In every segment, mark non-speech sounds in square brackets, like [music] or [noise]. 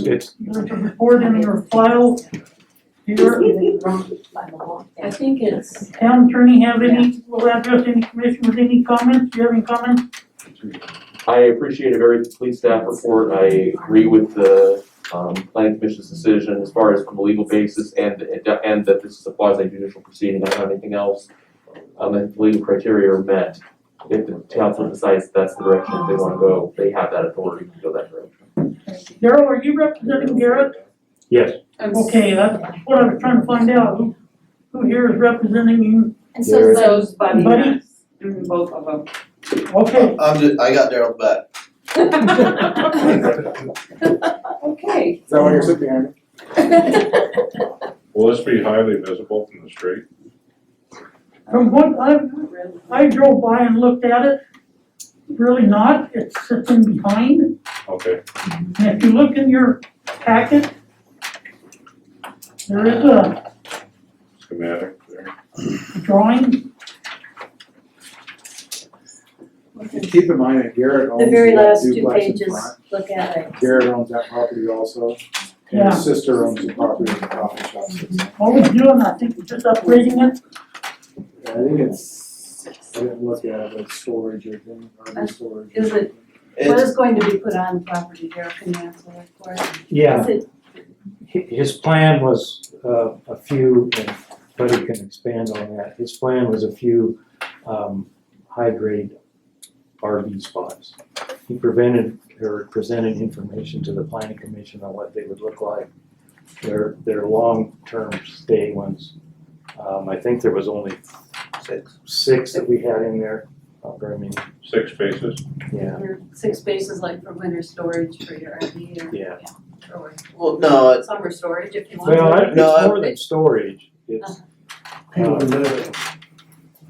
it's, Either to record in your file, either I think it's, town attorney have any, will address any commissioners, any comments, do you have any comments? I appreciate a very complete staff report. I agree with the um planning commission's decision as far as from a legal basis and and that this is a quasi judicial proceeding. I don't have anything else. Um and legal criteria are met. If the council decides that's the direction that they wanna go, they have that authority to go that direction. Daryl, are you representing Garrett? yes, I'm. Okay, that's what I was trying to find out, who, who here is representing you, And so it's like, So's Buddy Buddy? and us, Mm, both of [laughs] them. okay. I'm just, I got Daryl back. Okay. Is that why you're sitting there? Will this be highly visible from the street? From what I've, I drove by and looked at it, really not, it's sitting behind, Okay, and if you look in your packet, there is a schematic there. drawing, Keep in mind that Garrett [laughs] owns the very that last two duplex in pages, front. look at it. Garrett owns that property also, and Yeah. Mm-hmm. his sister owns the property in the coffee shop. sits there. what we're doing, I think we're just upgrading it, I think it's, I didn't look at it, but it's storage or thing, or Uh, storage. is it- What It's, is going to be put on the property, Daryl, can you answer that for us? Yeah, Is it, hi- his plan was uh, a few, and Buddy can expand on that. His plan was a few um, high-grade RV spots. He prevented or presented information to the planning commission on what they would look like. Their, their long-term stay ones. Um, I think there was only six, six that we had in there, not very many, Six spaces? yeah, your six spaces like for winter storage for your RV or, yeah. or well, no, it's, summer storage if you want. Well, I- it's No, I- more than storage, it's. People um, live,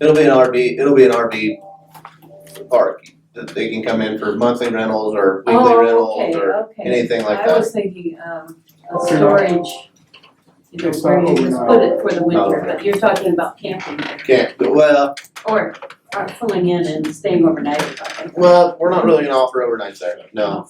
it'll be an RV, it'll be an RV park. That they can come in for monthly rentals or weekly rentals or Oh, okay, okay, anything like I that. was thinking, um, a It's not- storage, you know, It's where not you what we just know. put it for the winter, Oh. but you're talking about camping Can't, well, or, or filling in and staying overnight or something. well, we're not really gonna offer overnights there, no.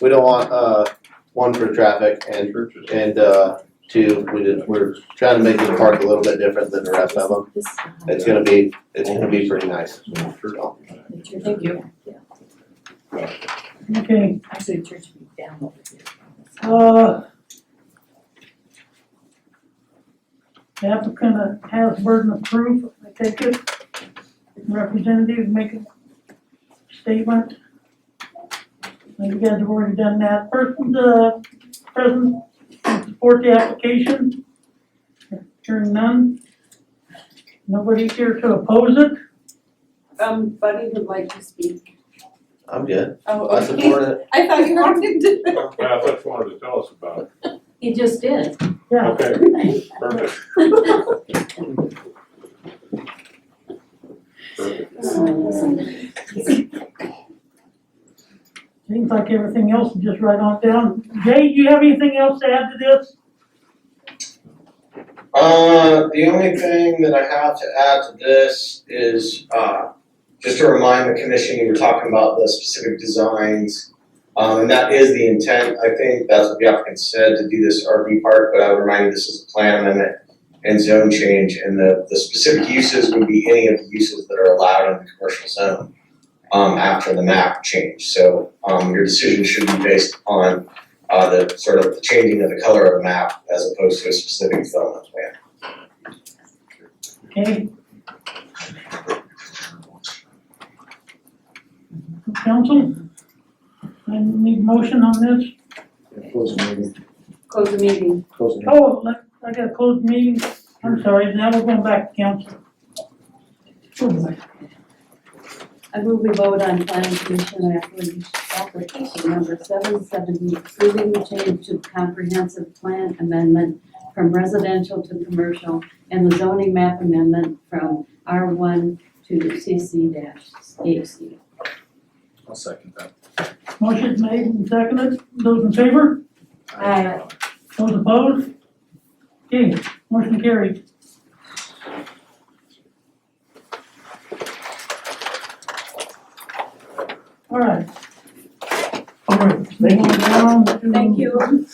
We don't want, uh, one for traffic and, Churches. and, uh, two, we did, we're trying to make the park a little bit different than the rest of them. This, uh, It's gonna be, it's gonna be pretty nice. picture, thank you. okay. Actually, church would be down over here. Uh. The applicant uh, has burden of proof, I take it. Representative make a statement. And you guys have already done that. Person, uh, present, support the application. Hearing none. Nobody here to oppose it. Um, Buddy would like to speak. I'm good, Oh, I [laughs] support it. I thought you wanted to. Yeah, I thought you wanted to tell us about it. He [laughs] just did. Yeah, Okay, perfect, perfect. seems like everything else is just right on down. Jay, do you have anything else to add to this? Uh, the only thing that I have to add to this is, uh, just to remind the commission, we were talking about the specific designs. Um, and that is the intent, I think, that's what the applicant said, to do this RV park, but I would remind you, this is a plan amendment and zone change, and the, the specific uses would be any of the uses that are allowed in the commercial zone, um, after the map change, so, um, your decision should be based on, uh, the sort of the changing of the color of the map as opposed to a specific development plan. Okay. Council? I need motion on this. yeah, Close the meeting, [laughs] Close the meeting. close the meeting. Oh, let- I gotta close the meeting. I'm sorry, now we're going back to council. I move we vote on planning commission application, application number seven seventy, approving the change to comprehensive plan amendment from residential to commercial and the zoning map amendment from R one to CC dash HC. I'll second that. Motion's made and seconded. Those in favor? Aye. Those opposed? Okay, motion carried. All right. All right, moving on down to- Thank you.